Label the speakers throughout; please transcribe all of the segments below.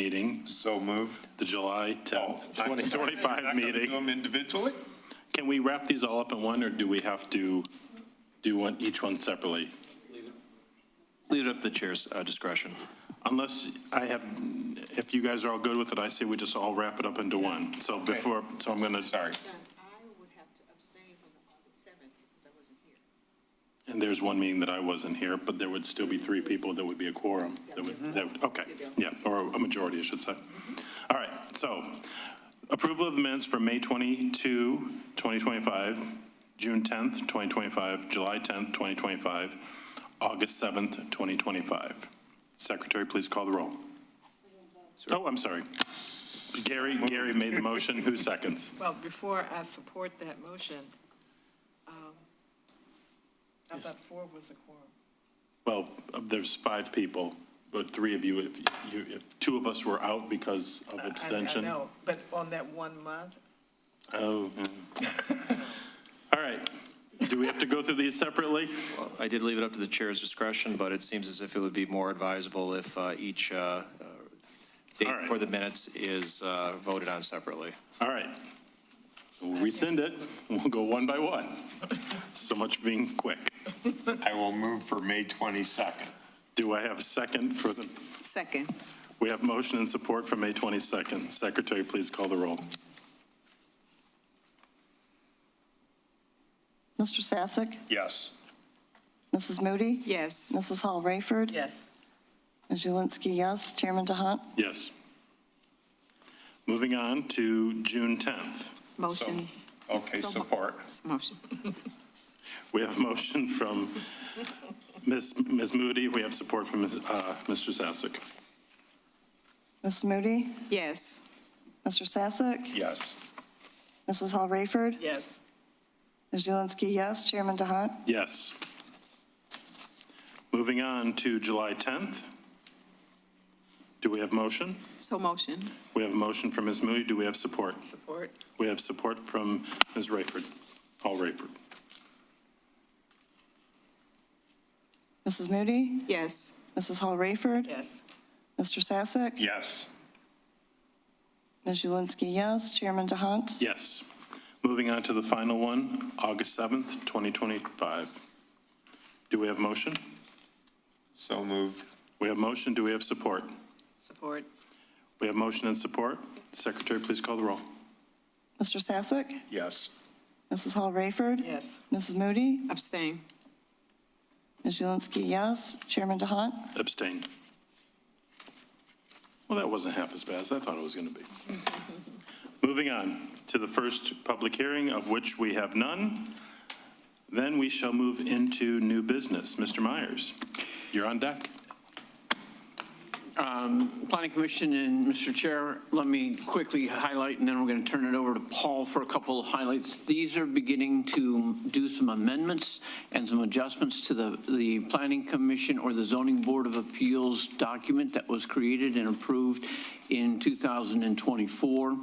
Speaker 1: meeting,
Speaker 2: So moved. Oh,
Speaker 1: the July 10th,
Speaker 2: I'm sorry, I'm not
Speaker 1: 2025
Speaker 2: gonna Do
Speaker 1: meeting.
Speaker 2: them individually?
Speaker 1: Can we wrap these all up in one, or do we have to do one, each one separately?
Speaker 3: Leave it up to the chair's uh, discretion.
Speaker 1: Unless I have, if you guys are all good with it, I say we just all wrap it up into one. So before, so I'm going to. Sorry.
Speaker 4: John, I would have to abstain from the August 7th because I wasn't here.
Speaker 1: And there's one meeting that I wasn't here, but there would still be three people, there would be a quorum. That would, that would, okay, yeah, or a majority, I should say. All right, so approval of the minutes for May 22, 2025, June 10th, 2025, July 10th, 2025, August 7th, 2025. Secretary, please call the roll. Oh, I'm sorry. Gary, Gary made the motion, who seconds?
Speaker 5: Well, before I support that motion, um, I thought four was a quorum.
Speaker 1: Well, there's five people, but three of you, if you, if two of us were out because of
Speaker 5: I- I-
Speaker 1: abstention.
Speaker 5: I know, but on that one month,
Speaker 1: Oh. yeah. All right. Do we have to go through these separately?
Speaker 3: Well, I did leave it up to the chair's discretion, but it seems as if it would be more advisable if uh, each uh, uh,
Speaker 1: All
Speaker 3: date
Speaker 1: right.
Speaker 3: for the minutes is uh, voted on separately.
Speaker 1: All right. We'll rescind it. We'll go one by one. So much for being quick.
Speaker 2: I will move for May 22nd.
Speaker 1: Do I have a second for the,
Speaker 4: Second.
Speaker 1: we have motion and support for May 22nd. Secretary, please call the roll.
Speaker 6: Mr. Sasek,
Speaker 2: Yes.
Speaker 6: Mrs. Moody,
Speaker 4: Yes.
Speaker 6: Mrs. Hall Rayford,
Speaker 5: yes.
Speaker 6: Ms. Julinski, yes. Chairman DeHaan,
Speaker 1: Yes. Moving on to June 10th.
Speaker 4: Motion.
Speaker 2: Okay,
Speaker 4: So mo-
Speaker 2: support.
Speaker 4: Motion.
Speaker 1: We have a motion from Ms. Ms. Moody. We have support from uh, Mr. Sasek.
Speaker 6: Mrs. Moody,
Speaker 4: Yes.
Speaker 6: Mr. Sasek,
Speaker 2: Yes.
Speaker 6: Mrs. Hall Rayford,
Speaker 5: Yes,
Speaker 6: Ms. Julinski, yes. Chairman DeHaan,
Speaker 1: Yes. Moving on to July 10th. Do we have motion?
Speaker 4: So motion.
Speaker 1: We have a motion from Ms. Moody. Do we have support?
Speaker 5: support,
Speaker 1: We have support from Ms. Rayford, Hall Rayford.
Speaker 6: Mrs. Moody,
Speaker 4: Yes.
Speaker 6: Mrs. Hall Rayford,
Speaker 5: yes.
Speaker 6: Mr. Sasek,
Speaker 2: Yes.
Speaker 6: Ms. Julinski, yes. Chairman DeHaan,
Speaker 1: Yes. Moving on to the final one, August 7th, 2025. Do we have motion?
Speaker 2: So moved.
Speaker 1: We have motion. Do we have support?
Speaker 5: Support,
Speaker 1: We have motion and support. Secretary, please call the roll.
Speaker 6: Mr. Sasek,
Speaker 2: Yes.
Speaker 6: Mrs. Hall Rayford,
Speaker 5: yes.
Speaker 6: Mrs. Moody,
Speaker 4: Abstain.
Speaker 6: Ms. Julinski, yes. Chairman DeHaan,
Speaker 1: Abstain. Well, that wasn't half as bad as I thought it was going to be. Moving on to the first public hearing, of which we have none. Then we shall move into new business. Mr. Myers, you're on deck.
Speaker 7: Um, Planning Commission and Mr. Chair, let me quickly highlight, and then we're going to turn it over to Paul for a couple of highlights. These are beginning to do some amendments and some adjustments to the, the Planning Commission or the Zoning Board of Appeals document that was created and approved in 2024.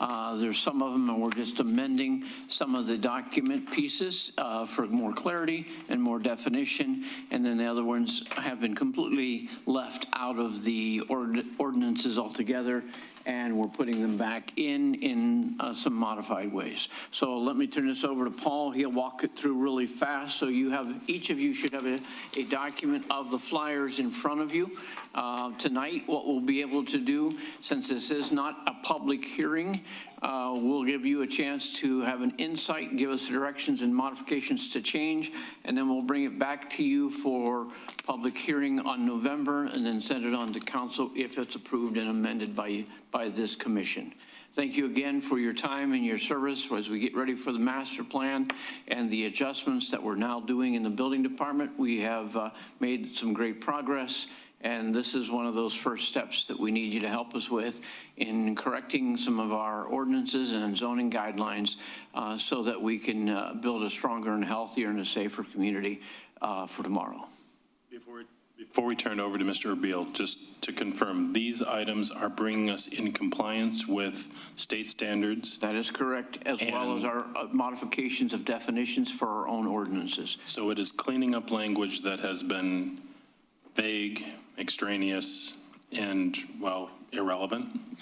Speaker 7: Uh, There's some of them, and we're just amending some of the document pieces uh, for more clarity and more definition, and then the other ones have been completely left out of the ord- ordinances altogether, and we're putting them back in, in uh, some modified ways. So let me turn this over to Paul, he'll walk it through really fast, so you have, each of you should have a, a document of the flyers in front of you. Uh, Tonight, what we'll be able to do, since this is not a public hearing, uh, we'll give you a chance to have an insight, give us directions and modifications to change, and then we'll bring it back to you for public hearing on November, and then send it on to council if it's approved and amended by, by this commission. Thank you again for your time and your service as we get ready for the master plan and the adjustments that we're now doing in the building department. We have uh, made some great progress, and this is one of those first steps that we need you to help us with in correcting some of our ordinances and zoning guidelines uh, so that we can uh, build a stronger and healthier and a safer community uh, for tomorrow.
Speaker 1: Before before we turn it over to Mr. Erbil, just to confirm, these items are bringing us in compliance with state standards,
Speaker 7: That is correct, as well as our uh, modifications of definitions for our own ordinances.
Speaker 1: so it is cleaning up language that has been vague, extraneous, and, well, irrelevant.